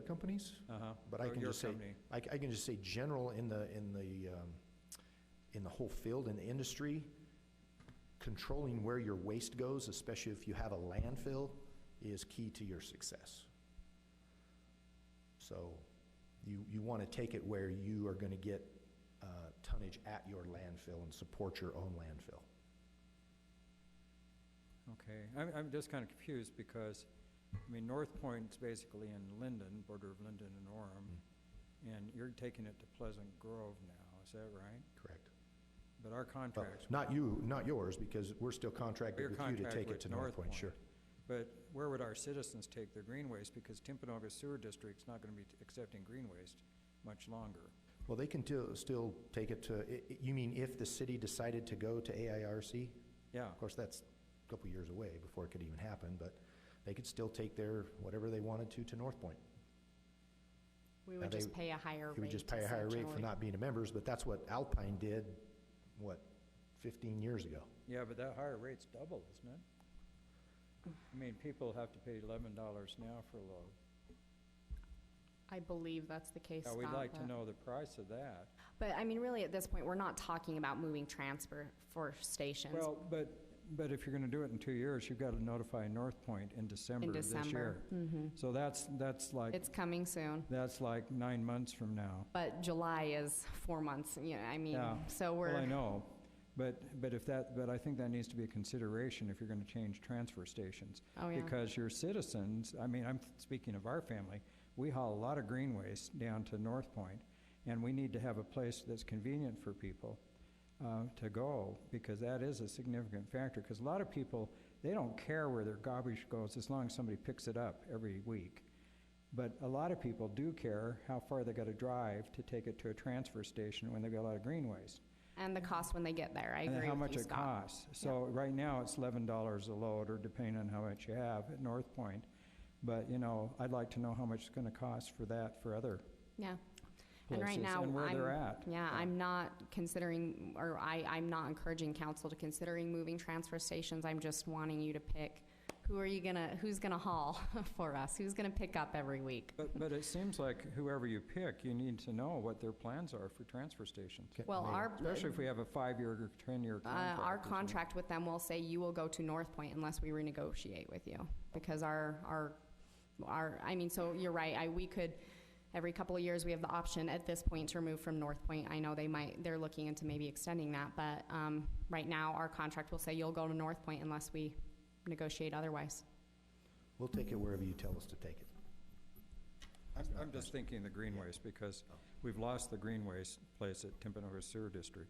companies, Uh-huh. but I Or can your just say, company. I, c- I can just say general in the, in the, um, in the whole field, in the industry, controlling where your waste goes, especially if you have a landfill, is key to your success. So you, you want to take it where you are going to get uh, tonnage at your landfill and support your own landfill. Okay, I'm, I'm just kind of confused because, I mean, North Point's basically in Linden, border of Linden and Orem, Hmm. and you're taking it to Pleasant Grove now, is that right? Correct. But our Well, contracts. Not you, not yours, because we're still contracted Your with you to contract take it with to North Point, sure. But where would our citizens take their green waste? Because Timpanogos Sewer District's not gonna be t- accepting green waste much longer. Well, they can till- still take it to, i- i- you mean if the city decided to go to AIRC? Yeah, Of course, that's a couple years away before it could even happen, but they could still take their, whatever they wanted to, to North Point. We Now would they- just pay a higher rate. It would just pay a higher rate for essentially. not being a members, but that's what Alpine did, what, 15 years ago? yeah, but that higher rate's double, isn't it? I mean, people have to pay eleven dollars now for a load. I believe that's the case. Now, we'd now, like to but- know the price of that. But I mean, really, at this point, we're not talking about moving transfer for stations. Well, but, but if you're gonna do it in two years, you've gotta notify North Point in December of this year. December, Mm-hmm. So that's, that's like, It's coming soon, that's like nine months from now. but July is four months, you know, I mean, Yeah. so Well, I we're, know, but, but if that, but I think that needs to be a consideration if you're gonna change transfer stations. Oh, yeah. Because your citizens, I mean, I'm speaking of our family, we haul a lot of green waste down to North Point, and we need to have a place that's convenient for people, uh, to go, because that is a significant factor, because a lot of people, they don't care where their garbage goes, as long as somebody picks it up every week. But a lot of people do care how far they gotta drive to take it to a transfer station when they've got a lot of green waste. and the cost when they get there, I And then agree how with much you, it Scott. costs. So right now, it's eleven dollars a load, or depending on how much you have at North Point. But, you know, I'd like to know how much it's gonna cost for that for other Yeah. And places right now, and where they're I'm, at. yeah, I'm not considering, or I, I'm not encouraging council to considering moving transfer stations. I'm just wanting you to pick, who are you gonna, who's gonna haul for us? Who's gonna pick up every week? But, but it seems like whoever you pick, you need to know what their plans are for transfer stations. Ca- Well, Mayor, our, Especially if we have a five-year or ten-year Uh, contract. Our or something. contract with them will say you will go to North Point unless we renegotiate with you, because our, our, our, I mean, so you're right, I, we could, every couple of years, we have the option at this point to remove from North Point. I know they might, they're looking into maybe extending that, but, um, right now, our contract will say you'll go to North Point unless we negotiate otherwise. We'll take it wherever you tell us to take it. I'm, I'm just thinking the green waste, because we've lost the green waste place at Timpanogos Sewer District.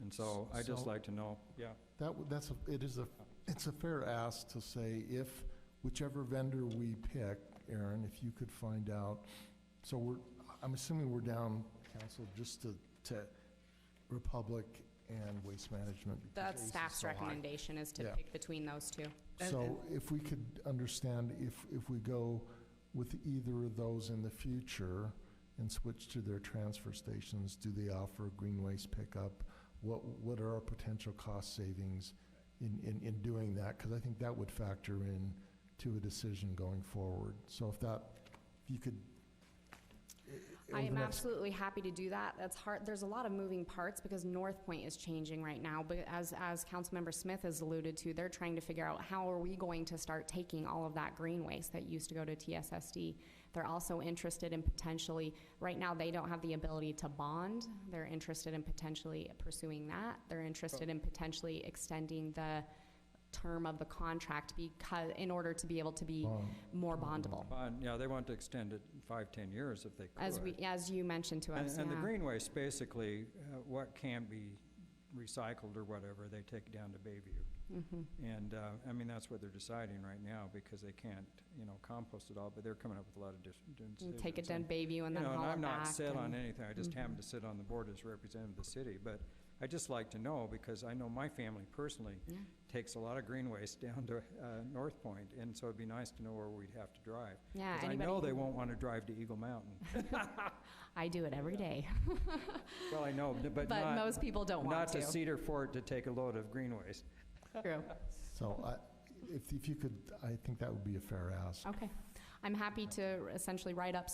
And so I'd just So- like to know, yeah. That, w- that's, a- it is a, it's a fair ask to say if whichever vendor we pick, Aaron, if you could find out, so we're, I'm assuming we're down, council, just to, to Republic and Waste Management. because That's ACE is staff's so high. recommendation is to Yeah. pick between those two. So if we could understand if, if we go with either of those in the future and switch to their transfer stations, do they offer green waste pickup? What, what are our potential cost savings in, in, in doing that? Because I think that would factor in to a decision going forward. So if that, if you could. i- i- I over am the next- absolutely happy to do that. That's hard, there's a lot of moving parts because North Point is changing right now. But as, as Councilmember Smith has alluded to, they're trying to figure out how are we going to start taking all of that green waste that used to go to TSSD. They're also interested in potentially, right now, they don't have the ability to bond. They're interested in potentially pursuing that. They're interested in potentially extending the term of the contract because, in order to be able to be Bond. more bondable. Fine, yeah, they want to extend it five, ten years if they could. As we, as you mentioned to And- us, And the yeah. green waste, basically, uh, what can be recycled or whatever, they take down to Bayview. Mm-hmm. And, uh, I mean, that's what they're deciding right now, because they can't, you know, compost it all, but they're coming up with a lot of dis- You decisions. Take it down Bayview and You then know, haul it and back. I'm not set on and- Mm-hmm. anything, I just happen to sit on the board as representative of the city, but i just like to know, because I know my family personally Yeah. takes a lot of green waste down to uh, North Point, and so it'd be nice to know where we'd have to drive. Yeah, Because I Uh, anybody know they who- won't want to drive to Eagle Mountain. I do it every day, Well, I know, but but not- most people don't want Not to to. Cedar Fort to take a load of green waste. True. So I, if, if you could, I think that would be a fair ask. Okay. I'm happy to essentially write up